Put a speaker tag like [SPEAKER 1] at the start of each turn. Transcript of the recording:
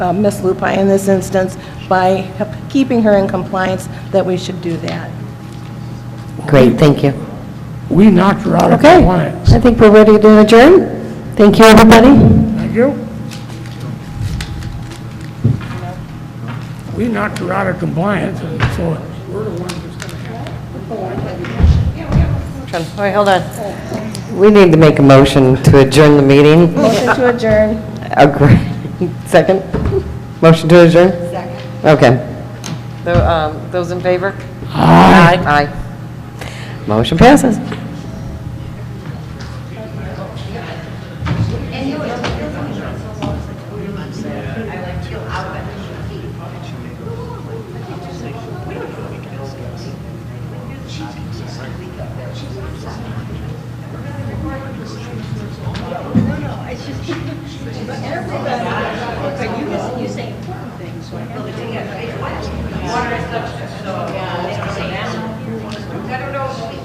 [SPEAKER 1] uh, Ms. Lupi in this instance, by keeping her in compliance, that we should do that.
[SPEAKER 2] Great, thank you.
[SPEAKER 3] We knocked her out of
[SPEAKER 2] Okay,
[SPEAKER 3] compliance.
[SPEAKER 2] I think we're ready to adjourn. Thank you, everybody.
[SPEAKER 3] Thank you. We knocked her out of compliance, and so we're the ones that's gonna have
[SPEAKER 2] All right, hold on. We need to make a motion to adjourn the meeting.
[SPEAKER 1] Motion to adjourn.
[SPEAKER 2] Agree. Second? Motion to adjourn? Second. Okay. Tho- um, Those in favor? Aye. Aye. Motion passes.